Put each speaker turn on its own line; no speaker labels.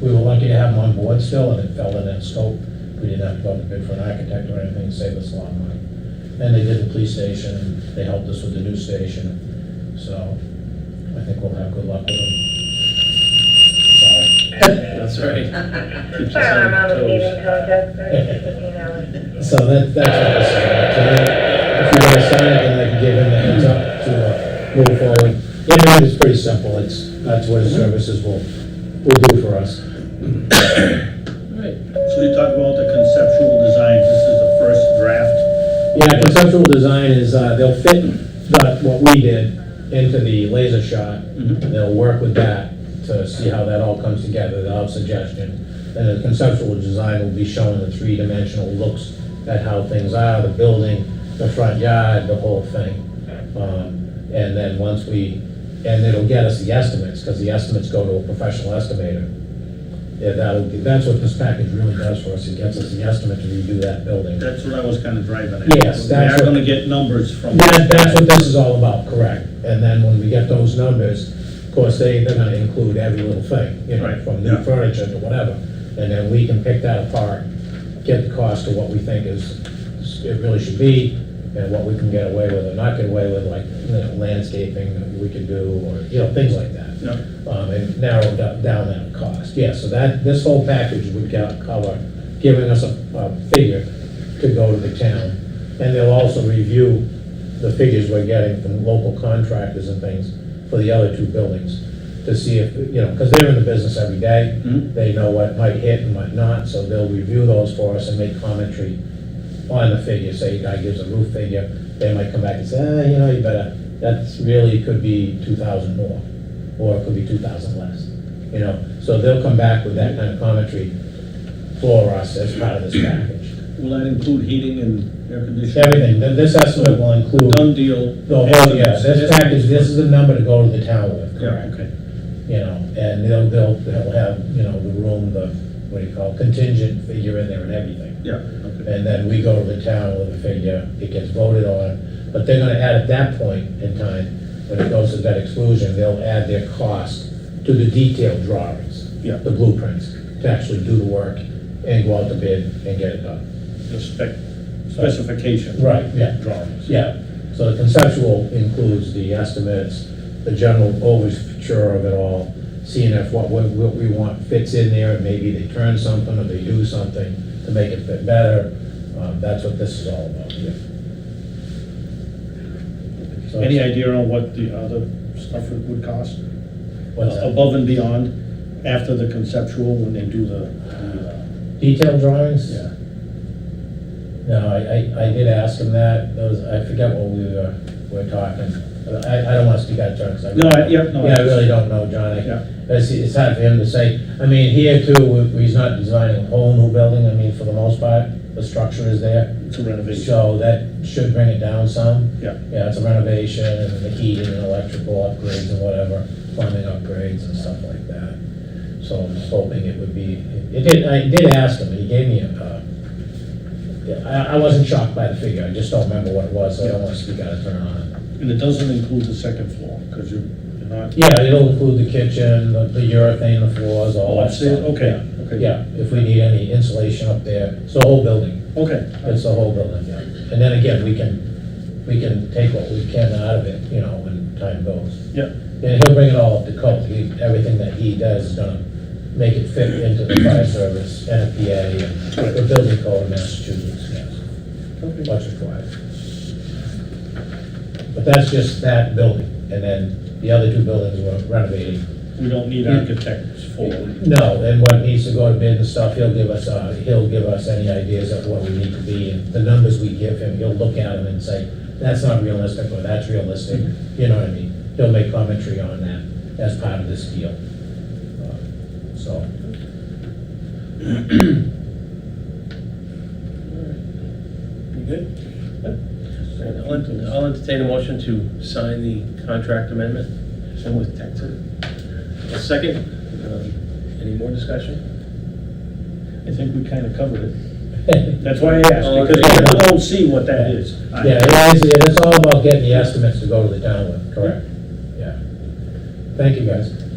we were lucky to have them on board still, and it fell in that scope. We didn't have to go out to bid for an architect or anything, it saved us a lot of money. And they did the police station, they helped us with the new station, so I think we'll have good luck with them. Sorry.
That's right. Keeps us
Sorry, I'm
on our
out of
toes.
meeting contest, but, you know,
So that, that's what I said. So then, if you want to sign it, then I can give him the heads up to uh, move forward. Inland is pretty simple, it's, that's what his services will, will do for us.
Right.
So you talk about the conceptual design, this is the first draft.
Yeah, conceptual design is, uh, they'll fit the, what we did into the laser shot. They'll work with that to see how that all comes together, they'll have suggestion. And the conceptual design will be showing the three-dimensional looks at how things are, the building, the front yard, the whole thing. Um, And then once we, and it'll get us the estimates, because the estimates go to a professional estimator. Yeah, that'll, be- that's what this package really does for us, it gets us the estimate to redo that building.
That's what I was kind of driving at.
Yes, that's
We are
what-
gonna get numbers from.
That, that's what this is all about, correct. And then when we get those numbers, of course, they, they're gonna include every little thing, you know,
Right,
from
yeah.
new furniture to whatever. And then we can pick that apart, get the cost of what we think is, it really should be, and what we can get away with or not get away with, like, you know, landscaping that we could do, or, you know, things like that
Yeah.
um, and narrow da- down that cost. Yeah, so that, this whole package would co- cover, giving us a, a figure to go to the town. And they'll also review the figures we're getting from local contractors and things for the other two buildings to see if, you know, because they're in the business every day.
Mhm.
They know what might hit and might not, so they'll review those for us and make commentary on the figure, say a guy gives a roof figure, they might come back and say, ah, you know, you better, that's really could be two thousand more, or it could be two thousand less, you know? So they'll come back with that kind of commentary for us as part of this package.
Will that include heating and air conditioning?
Everything, th- this estimate will include
Done deal.
the whole, yeah, this package, this is the number to go to the town with,
Yeah,
correct?
okay.
You know, and they'll, they'll, they'll have, you know, the room, the, what do you call, it, contingent figure in there and everything.
Yeah, okay.
And then we go to the town with a figure, it gets voted on, but they're gonna add at that point in time, when it goes to that exclusion, they'll add their cost to the detailed drawings.
Yeah.
The blueprints, to actually do the work and go out to bid and get it done.
The spec, specification.
Right, yeah, drawings, yeah. So the conceptual includes the estimates, the general overture of it all, seeing if what, what what we want fits in there, and maybe they turn something or they do something to make it fit better. Um, That's what this is all about, yeah. So
Any
it's-
idea on what the other stuff it would cost?
What's that?
Above and beyond, after the conceptual, when they do the, the, uh,
Detailed drawings?
yeah.
No, I, I, I did ask him that, those, I forget what we were, were talking. I, I don't wanna speak out of turn, 'cause I.
No, I- yeah, no, I-
Yeah, I really don't know, John, I,
Yeah.
it's, it's hard for him to say. I mean, here too, we- he's not designing a whole new building, I mean, for the most part, the structure is there.
It's a renovation.
So that should bring it down some.
Yeah.
Yeah, it's a renovation, and the heating and electrical upgrades and whatever, plumbing upgrades and stuff like that. So I'm just hoping it would be, it did, I did ask him, and he gave me a, uh, yeah, I, I wasn't shocked by the figure, I just don't remember what it was, so I don't wanna speak out of turn on it.
And it doesn't include the second floor, because you're you're not.
Yeah, it'll include the kitchen, the the urethane, the floors, all
Oh,
that
upstairs,
stuff.
okay,
Yeah.
okay.
Yeah, if we need any insulation up there, it's the whole building.
Okay.
It's the whole building, yeah. And then again, we can, we can take what we can out of it, you know, when time goes.
Yeah,
And he'll bring it all up to code, he, everything that he does is gonna make it fit into the fire service, NFPA, and the building code of Massachusetts, yes,
okay.
what's required. But that's just that building, and then the other two buildings we're renovating.
We don't need architects for,
No, and what needs to go to bid and stuff, he'll give us, uh, he'll give us any ideas of what we need to be, and the numbers we give him, he'll look at them and say, that's not realistic, or that's realistic, you know what I mean? He'll make commentary on that as part of this deal. Uh, So,
You good? Uh, I'll ent-
Yep.
I'll entertain a motion to sign the contract amendment, same with Texas. A second, Um, any more discussion?
I think we kind of covered it. That's why I asked, because
Oh, Okay.
I don't see what that is. I-
yeah, it is, it's all about getting the estimates to go to the town with, correct? Yeah. Thank you, guys.